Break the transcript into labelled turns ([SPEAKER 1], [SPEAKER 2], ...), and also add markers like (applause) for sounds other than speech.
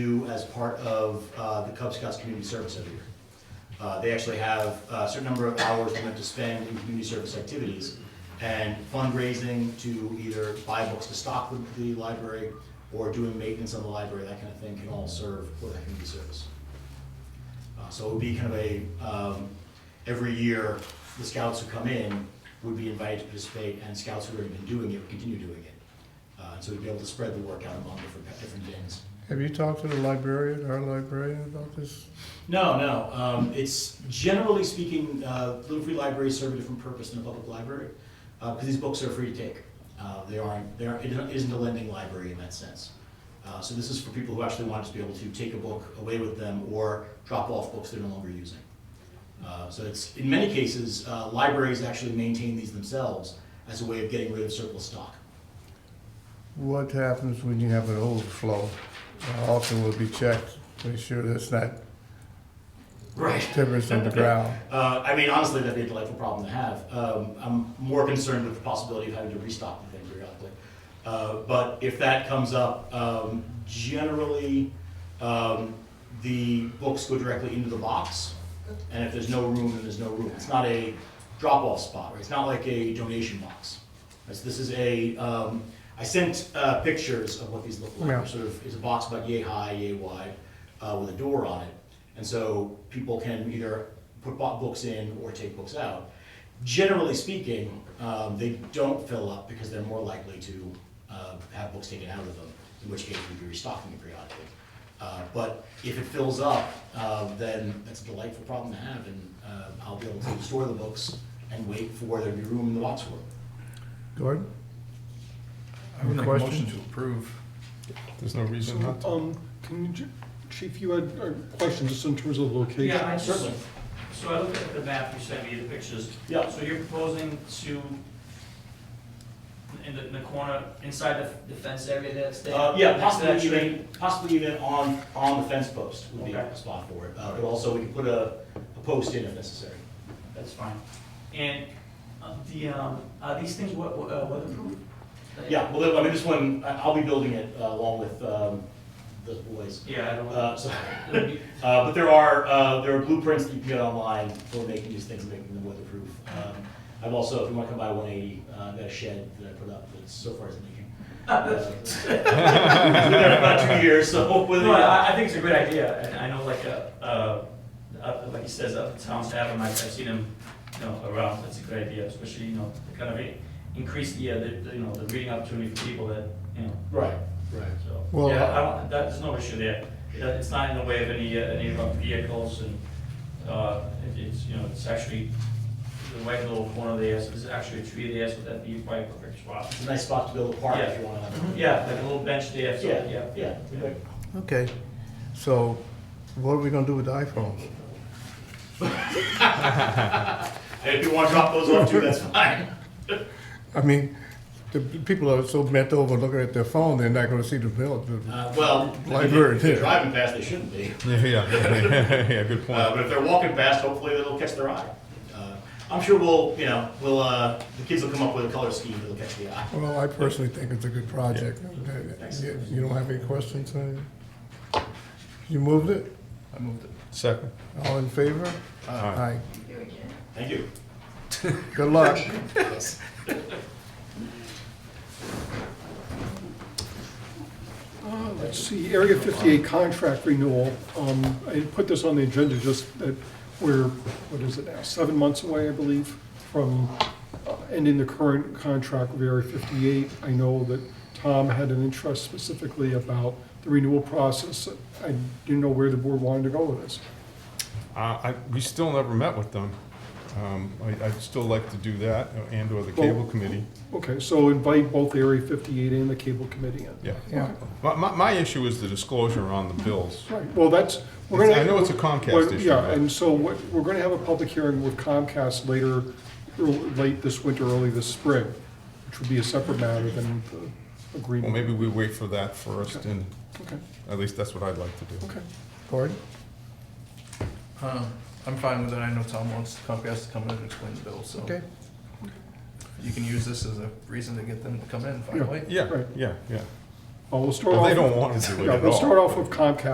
[SPEAKER 1] do as part of uh, the Cub Scouts community service every year. Uh, They actually have uh, a certain number of hours we have to spend in community service activities and fundraising to either buy books to stock the- the library or doing maintenance on the library, that kind of thing can all serve for that community service. Uh, So it would be kind of a, um, every year, the scouts who come in would be invited to participate, and scouts who have already been doing it would continue doing it. Uh, So we'd be able to spread the work out among different, different bins.
[SPEAKER 2] Have you talked to the librarian, our librarian about this?
[SPEAKER 1] No, no, um, it's, generally speaking, uh, Little Free Libraries serve a different purpose than a public library, uh, because these books are free to take. Uh, They aren't, there isn't a lending library in that sense. Uh, So this is for people who actually want to be able to take a book away with them or drop off books they're no longer using. Uh, So it's, in many cases, uh, libraries actually maintain these themselves as a way of getting rid of surplus stock.
[SPEAKER 2] What happens when you have an overflow? How Often will be checked, make sure that's not
[SPEAKER 1] Right.
[SPEAKER 2] timbers on the ground.
[SPEAKER 1] Uh, I mean, honestly, that'd be a delightful problem to have. Um, I'm more concerned with the possibility of having to restock the thing periodically. Uh, but if that comes up, um, generally, um, the books go directly into the box. And if there's no room, then there's no room. It's not a drop-off spot, right? It's not like a donation box. This this is a, um, I sent, uh, pictures of what these look like.
[SPEAKER 2] Yeah.
[SPEAKER 1] Sort of, it's a box about yay high, yay wide, uh, with a door on it. And so people can either put bo- books in or take books out. Generally speaking, um, they don't fill up because they're more likely to uh, have books taken out of them, in which case we'd be restocking it periodically. Uh, But if it fills up, uh, then that's a delightful problem to have, and uh, I'll be able to store the books and wait for there to be room in the box for them.
[SPEAKER 2] Gordon?
[SPEAKER 3] I would
[SPEAKER 2] Any
[SPEAKER 3] make a motion
[SPEAKER 2] questions?
[SPEAKER 3] to approve.
[SPEAKER 4] There's no reason not to.
[SPEAKER 5] Um, can you, ju- Chief, you had a question just in terms of location?
[SPEAKER 6] Yeah, I just, so I looked at the map you sent me, the pictures.
[SPEAKER 1] Yeah.
[SPEAKER 6] So you're proposing to, in the, in the corner, inside the the fence area that's there?
[SPEAKER 1] Uh, yeah,
[SPEAKER 6] next to that
[SPEAKER 1] possibly
[SPEAKER 6] tree?
[SPEAKER 1] even, possibly even on, on the fence post would be a
[SPEAKER 6] Okay.
[SPEAKER 1] spot for it. Uh, But also, we can put a, a post in if necessary.
[SPEAKER 6] That's fine. And uh, the, um, are these things wea- wea- uh, weatherproof?
[SPEAKER 1] Yeah, well, I mean, this one, I- I'll be building it uh, along with um, the boys.
[SPEAKER 6] Yeah, I
[SPEAKER 1] Uh, so-
[SPEAKER 6] don't, it'll be-
[SPEAKER 1] Uh, But there are, uh, there are blueprints that you can get online for making these things, and making them weatherproof. Um, I've also, if you want to come by 180, uh, I've got a shed that I put up that's so far as
[SPEAKER 6] (laughs)
[SPEAKER 1] leaking. Uh, (laughs) It's been there for about two years, so (laughs) with,
[SPEAKER 6] No, I, I think it's a great idea, and I know like, uh, uh, up- like he says, up towns have them, I've I've seen them, you know, around, it's a great idea, especially, you know, to kind of in- increase the, uh, the, the, you know, the reading opportunity for people that, you know,
[SPEAKER 1] right, right.
[SPEAKER 6] so,
[SPEAKER 2] Well,
[SPEAKER 6] yeah, I don't, that, there's no issue there. It- It's not in the way of any, uh, any of our vehicles and, uh, it- it's, you know, it's actually the right little corner there, so there's actually a tree there, so that'd be quite a perfect spot.
[SPEAKER 1] It's a nice spot to build a park if you want to.
[SPEAKER 6] Yeah, like a little bench there, so,
[SPEAKER 1] Mm-hmm. Yeah,
[SPEAKER 6] yeah.
[SPEAKER 1] yeah, yeah.
[SPEAKER 2] Okay, so what are we gonna do with the iPhones?
[SPEAKER 1] Hey, If you want to drop those off too, that's fine.
[SPEAKER 2] I mean, the people are so bent over looking at their phone, they're not gonna see the bill.
[SPEAKER 1] Uh, well,
[SPEAKER 2] Library,
[SPEAKER 1] if they're
[SPEAKER 2] yeah.
[SPEAKER 1] driving fast, they shouldn't be.
[SPEAKER 4] (laughs) Yeah, yeah, yeah, good
[SPEAKER 1] Uh,
[SPEAKER 4] point.
[SPEAKER 1] but if they're walking fast, hopefully it'll catch their eye. Uh, I'm sure we'll, you know, we'll, uh, the kids will come up with a color scheme that'll catch the eye.
[SPEAKER 2] Well, I personally think it's a good project. You you don't have any questions, uh, You moved it?
[SPEAKER 3] I moved it.
[SPEAKER 4] Second.
[SPEAKER 2] All in favor?
[SPEAKER 4] Aye.
[SPEAKER 1] Thank you.
[SPEAKER 2] Aye. Good luck.
[SPEAKER 5] Uh, Let's see, Area 58 contract renewal. Um, I put this on the agenda just that we're, what is it now, seven months away, I believe, from uh, ending the current contract with Area 58. I know that Tom had an interest specifically about the renewal process. I didn't know where the board wanted to go with this.
[SPEAKER 4] Uh, I, we still never met with them. Um, I, I'd still like to do that uh, and or the cable committee,
[SPEAKER 5] Okay, so invite both Area 58 and the Cable Committee in.
[SPEAKER 4] yeah.
[SPEAKER 2] Yeah.
[SPEAKER 4] My, my, my issue is the disclosure on the bills.
[SPEAKER 5] Right, well, that's, we're
[SPEAKER 4] It's-
[SPEAKER 5] gonna.
[SPEAKER 4] I know it's a
[SPEAKER 5] Well,
[SPEAKER 4] Comcast issue.
[SPEAKER 5] Yeah,
[SPEAKER 4] but-
[SPEAKER 5] and so what, we're gonna have a public hearing with Comcast later, or late this winter, early this spring, which would be a separate matter than the
[SPEAKER 4] Well,
[SPEAKER 5] agreement.
[SPEAKER 4] maybe we wait for that first and
[SPEAKER 5] Okay,
[SPEAKER 4] at least that's what I'd like to do.
[SPEAKER 5] okay.
[SPEAKER 2] Gordon?
[SPEAKER 3] Um, I'm fine with it. I know Tom wants Comcast to come in and explain the bill, so
[SPEAKER 2] Okay.
[SPEAKER 3] you can use this as a reason to get them to come in finally.
[SPEAKER 4] Yeah,
[SPEAKER 5] Right.
[SPEAKER 4] yeah, yeah.
[SPEAKER 5] Well, we'll start
[SPEAKER 4] Well,
[SPEAKER 5] off.
[SPEAKER 4] they don't want to do it
[SPEAKER 5] Yeah,
[SPEAKER 4] at all.
[SPEAKER 5] We'll start off
[SPEAKER 4] but-
[SPEAKER 5] with Comcast